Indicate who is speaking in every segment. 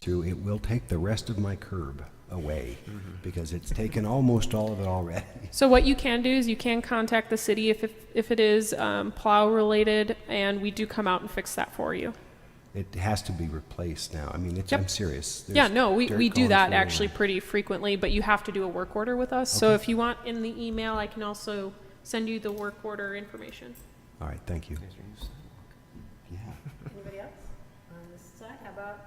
Speaker 1: through, it will take the rest of my curb away because it's taken almost all of it already.
Speaker 2: So what you can do is you can contact the city if, if, if it is um, plow related, and we do come out and fix that for you.
Speaker 1: It has to be replaced now. I mean, it's,
Speaker 2: Yep.
Speaker 1: I'm serious. There's
Speaker 2: Yeah, no, we,
Speaker 1: dirt
Speaker 2: we do
Speaker 1: going
Speaker 2: that
Speaker 1: through and-
Speaker 2: actually pretty frequently, but you have to do a work order with us. So if you want in the email, I can also send you the work order information.
Speaker 1: All right, thank you. Yeah.
Speaker 3: Anybody else on this side? How about,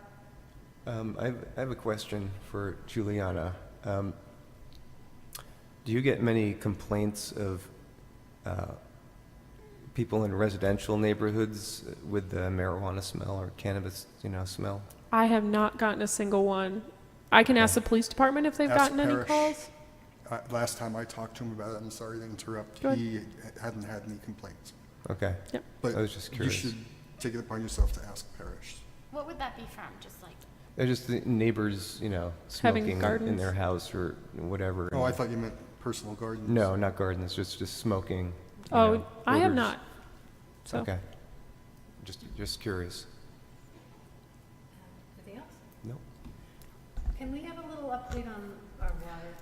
Speaker 4: Um, I have, I have a question for Juliana. Um, do you get many complaints of uh, people in residential neighborhoods with the marijuana smell or cannabis, you know, smell?
Speaker 2: I have not gotten a single one. I can ask the police department if they've
Speaker 5: Ask
Speaker 2: gotten any
Speaker 5: Parrish.
Speaker 2: calls.
Speaker 5: Uh, Last time I talked to him about it, I'm sorry to interrupt,
Speaker 2: Go ahead.
Speaker 5: he hadn't had any complaints.
Speaker 4: Okay.
Speaker 2: Yep.
Speaker 5: But
Speaker 4: I was just
Speaker 5: you
Speaker 4: curious.
Speaker 5: should take it upon yourself to ask Parrish.
Speaker 6: What would that be from? Just like
Speaker 4: They're just the neighbors, you know,
Speaker 2: Having
Speaker 4: smoking in
Speaker 2: gardens?
Speaker 4: their house or whatever.
Speaker 5: Oh, I thought you meant personal gardens.
Speaker 4: No, not gardens, just, just smoking. you
Speaker 2: Oh,
Speaker 4: know,
Speaker 2: I have
Speaker 4: odors.
Speaker 2: not. So,
Speaker 4: Okay. Just, just curious.
Speaker 3: anything else?
Speaker 4: No.
Speaker 3: Can we have a little update on our water?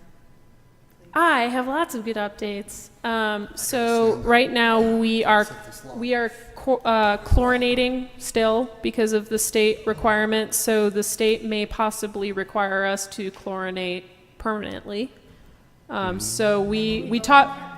Speaker 2: I have lots of good updates. Um, so right now we are we are co- uh, chlorinating still because of the state requirement. So the state may possibly require us to chlorinate permanently. Um, so we we talked.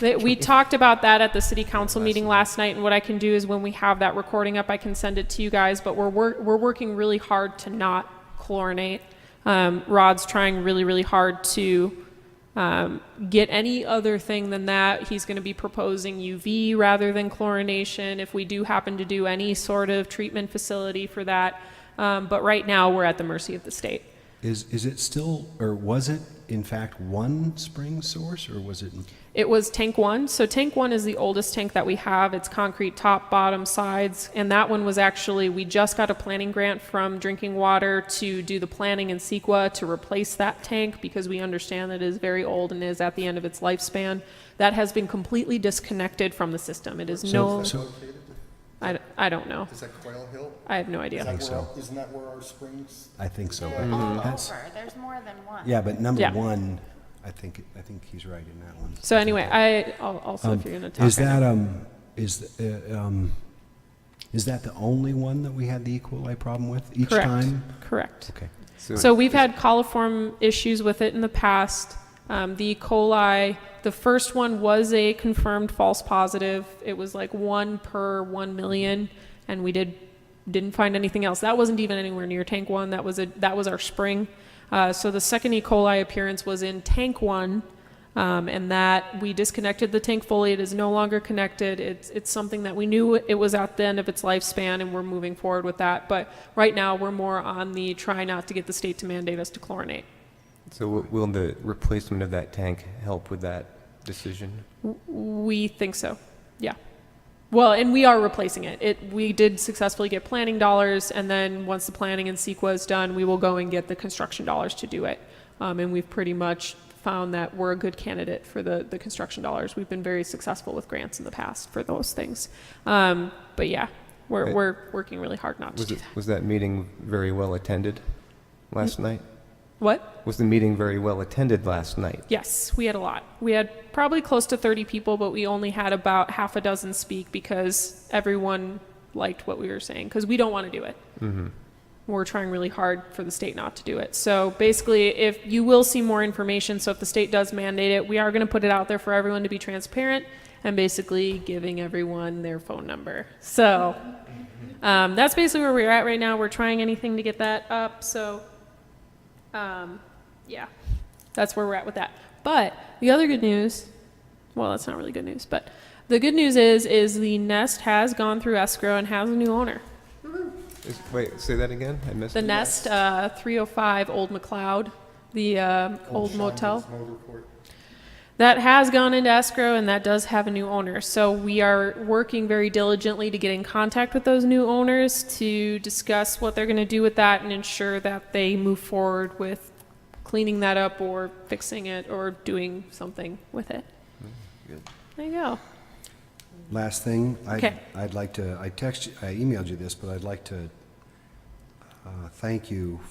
Speaker 2: That we talked about that at the city council meeting last night, and what I can do is when we have that recording up, I can send it to you guys. But we're wor- we're working really hard to not chlorinate. Um, Rod's trying really really hard to um, get any other thing than that. He's going to be proposing UV rather than chlorination if we do happen to do any sort of treatment facility for that. Um, but right now, we're at the mercy of the state.
Speaker 1: Is, is it still, or was it in fact one spring source or was it?
Speaker 2: It was tank one. So tank one is the oldest tank that we have. It's concrete top, bottom, sides. And that one was actually, we just got a planning grant from Drinking Water to do the planning in Sequa to replace that tank because we understand that it is very old and is at the end of its lifespan. That has been completely disconnected from the system. It is no,
Speaker 1: So,
Speaker 2: I, d- I don't know.
Speaker 5: Is that Quail Hill?
Speaker 2: I have no
Speaker 5: Is
Speaker 2: idea.
Speaker 5: that
Speaker 1: think
Speaker 5: where-
Speaker 1: so.
Speaker 5: Isn't that where our springs?
Speaker 1: I think so.
Speaker 6: they're
Speaker 1: but
Speaker 6: all
Speaker 1: that's-
Speaker 6: over. There's more than one.
Speaker 1: Mm-hmm. Yeah, but number
Speaker 2: Mm-hmm. Yeah.
Speaker 1: one, I think, I think he's right in that one.
Speaker 2: So anyway, I, al- also if you're going to talk.
Speaker 1: Um, Is
Speaker 2: I know.
Speaker 1: that, um, is, uh, um, is that the only one that we had the E. coli problem with each
Speaker 2: Correct.
Speaker 1: time?
Speaker 2: Correct.
Speaker 1: Okay.
Speaker 2: So we've had coliform issues with it in the past. Um, the E. coli, the first one was a confirmed false positive. It was like one per one million, and we did didn't find anything else. That wasn't even anywhere near tank one. That was a that was our spring. Uh, so the second E. coli appearance was in tank one, um, and that we disconnected the tank fully. It is no longer connected. It's it's something that we knew it was at the end of its lifespan, and we're moving forward with that. But right now, we're more on the try not to get the state to mandate us to chlorinate.
Speaker 4: So w- will the replacement of that tank help with that decision?
Speaker 2: We think so. Yeah. Well, and we are replacing it. It we did successfully get planning dollars, and then once the planning and CEQA is done, we will go and get the construction dollars to do it. Um, and we've pretty much found that we're a good candidate for the the construction dollars. We've been very successful with grants in the past for those things. Um, but yeah, we're
Speaker 4: Right.
Speaker 2: we're working really hard not to
Speaker 4: Was
Speaker 2: do
Speaker 4: it,
Speaker 2: that.
Speaker 4: was that meeting very well attended last night?
Speaker 2: What?
Speaker 4: Was the meeting very well attended last night?
Speaker 2: Yes, we had a lot. We had probably close to 30 people, but we only had about half a dozen speak because everyone liked what we were saying because we don't want to do it. We're trying really hard for the state not to do it. So basically, if you will see more information, so if the state does mandate it, we are going to put it out there for everyone to be transparent and basically giving everyone their phone number. So um, that's basically where we're at right now. We're trying anything to get that up. So um, yeah, that's where we're at with that. But the other good news, well, that's not really good news, but the good news is, is the nest has gone through escrow and has a new owner.
Speaker 4: Is- Wait, say that again? I missed
Speaker 2: The
Speaker 4: it.
Speaker 2: nest, uh, 305 Old McLeod, the um old motel.
Speaker 5: Motor court.
Speaker 2: That has gone into escrow and that does have a new owner. So we are working very diligently to get in contact with those new owners to discuss what they're going to do with that and ensure that they move forward with cleaning that up or fixing it or doing something with it. There you go.
Speaker 1: Last thing, I'd,
Speaker 2: Okay.
Speaker 1: I'd like to, I text, I emailed you this, but I'd like to uh, thank you